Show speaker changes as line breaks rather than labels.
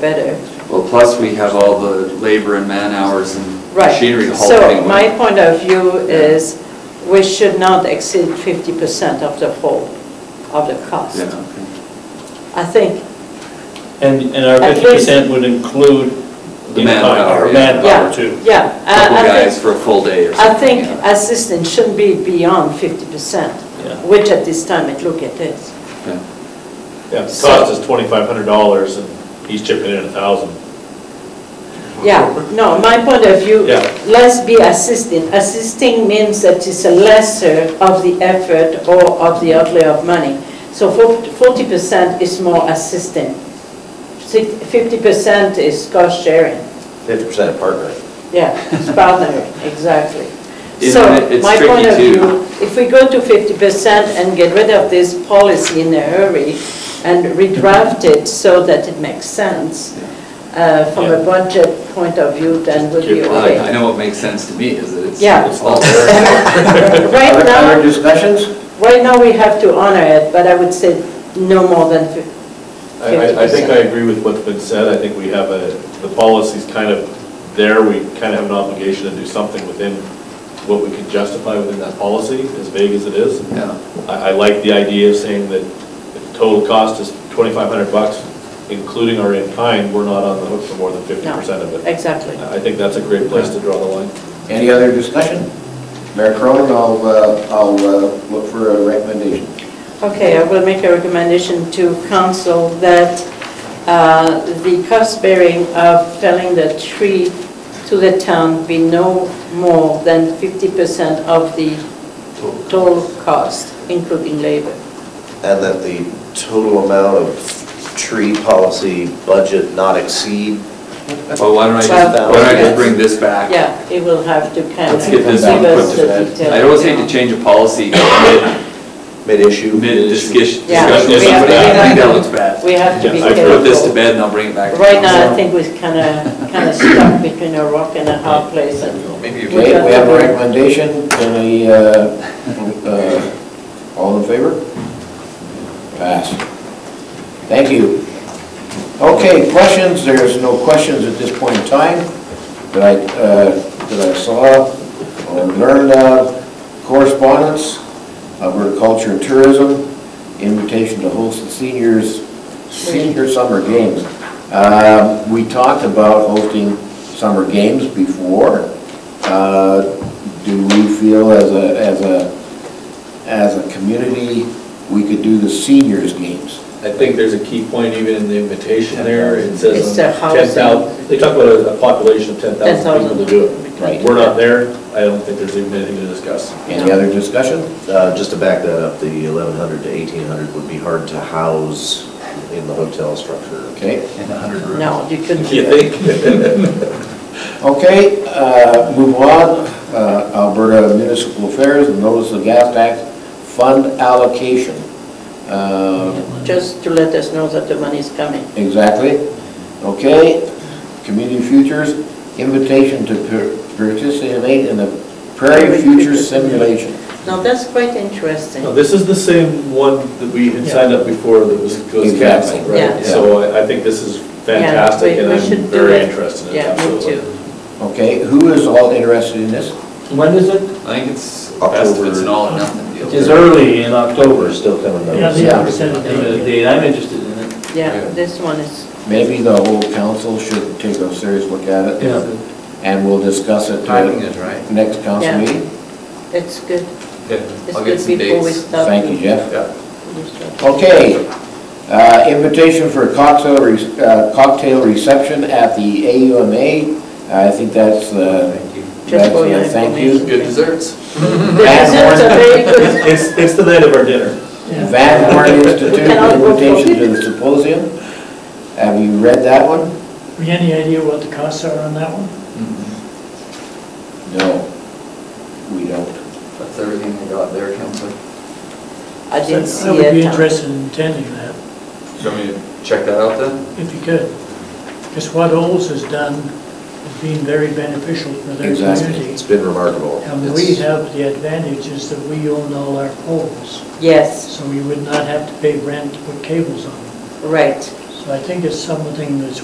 better.
Well, plus we have all the labor and man hours and
Right.
machinery hauled
So
anyway.
my point of view is we should not exceed 50% of the whole, of the cost.
Yeah, okay.
I think,
And, and our
At
fifty percent would include.
The
you know,
manpower,
our
yeah.
Manpower
yeah,
too.
yeah. I-
Couple
Uh, I think-
guys for a full day or
I
something.
think
yeah.
assistance shouldn't be beyond 50%,
Yeah.
which at this time it look at this.
Yeah.
Yeah, the
So-
cost is twenty-five hundred dollars and he's chipping in a thousand.
Yeah, no, my point of view,
Yeah.
let's be assisting. Assisting means that it's a lesser of the effort or of the outlay of money. So forty percent is more assisting. Fifty percent is cost sharing.
Fifty percent partner.
Yeah, it's partnering, exactly.
Isn't it-
So
it's
my
tricky
point of
too.
view, if we go to fifty percent and get rid of this policy in a hurry and redraft it so that it makes sense uh, from a budget point of view, then we'll be
Keep
Well, I- I
okay.
know what makes sense to me is that it's.
Yeah.
It's all there.
Right
Other- Other
now,
discussions?
right now we have to honor it, but I would say no more than fifty.
I, I- I think
50%.
I agree with what's been said. I think we have a, the policy's kind of there. We kind of have an obligation to do something within what we can justify within that policy, as vague as it is.
Yeah.
I, I like the idea of saying that if the total cost is twenty-five hundred bucks, including our in-kind, we're not on the hook for more than fifty
No,
percent of it.
Exactly.
I think that's a great place to draw the line.
Any other discussion? Mayor Cronin, I'll, uh, I'll uh, look for a recommendation.
Okay, I will make a recommendation to council that uh, the cost bearing of felling the tree to the town be no more than 50% of the total cost, including labor.
And that the total amount of tree policy budget not exceed,
Well, why don't I just, why don't I just bring this back?
Yeah, it will have to kind of
Let's
give
get this one
us
put to
the
bed.
detail.
I always hate to change a policy mid,
mid-issue.
mid-discussion,
Yeah.
discussion with
Yeah.
somebody, I think that looks
We
bad.
have to be
Yeah, I
Put this to
careful.
bed and I'll bring it back. to
Right now, I
council.
think we're kind of, kind of stuck between a rock and a hard place and
Maybe you-
Okay, we have a recommendation, can I, uh, uh, all in favor? Pass. Thank you. Okay, questions, there's no questions at this point in time that I, uh, that I saw or learned of. Correspondence, Alberta Culture and Tourism, invitation to host the seniors, senior summer games. Um, We talked about hosting summer games before. Uh, Do we feel as a, as a, as a community, we could do the seniors games?
I think there's a key point even in the invitation there, it
It's
says
their housing.
10,000, they talk about a a population of 10,000 people to do it.
Right.
We're not there, I don't think there's even anything to discuss.
Any other discussion?
Uh, Just to back that up, the 1,100 to 1,800 would be hard to house in the hotel structure.
Okay,
no, you couldn't.
You think?
okay, uh, move on. Uh, Alberta Municipal Affairs, notice of gas tax fund allocation. Uh,
Just to let us know that the money is coming.
Exactly. Okay, community futures, invitation to par- participate in the Prairie Futures Simulation.
Now, that's quite interesting.
No, This is the same one that we had signed up before that was was
Exactly.
canceled,
Yeah.
right? So I I think this is fantastic,
Yeah,
and
we- we should
I'm
do
very
it.
interested in it,
Yeah, me
absolutely.
too.
Okay, who is all interested in this?
When is it?
I think it's best if it's an all or nothing deal.
It's early in October.
still coming
Yeah, they have to send a thing with a date. I'm interested in it.
Yeah, this one is,
Maybe the whole council should take a serious look at it.
Yeah.
And we'll discuss it.
Timing is right.
Next council
Yeah.
meeting.
it's good.
Yeah,
It's
I'll get
good
some
before we
dates.
start.
Thank you, Jeff.
Jeff.
Okay, uh, invitation for cocktail, re- uh, cocktail reception at the AUMA. I think that's, uh,
Just
that's,
for your
uh, thank you.
information.
Good desserts.
The desserts are very good.
It's it's the night of our dinner.
Van Horn Institute,
We cannot go for-
invitation to the symposium. Have you read that one?
Any idea what the costs are on that one?
No, we don't.
That's everything I got there, Counselor.
I didn't see
I would be
it.
interested in attending that,
Do you want me to check that out then?
if you could. Because what Olds has done has been very beneficial for their
Exactly.
community.
It's been remarkable.
And we
It's-
have the advantage is that we own all our poles,
Yes,
so we would not have to pay rent to put cables on them.
right.
So I think it's something that's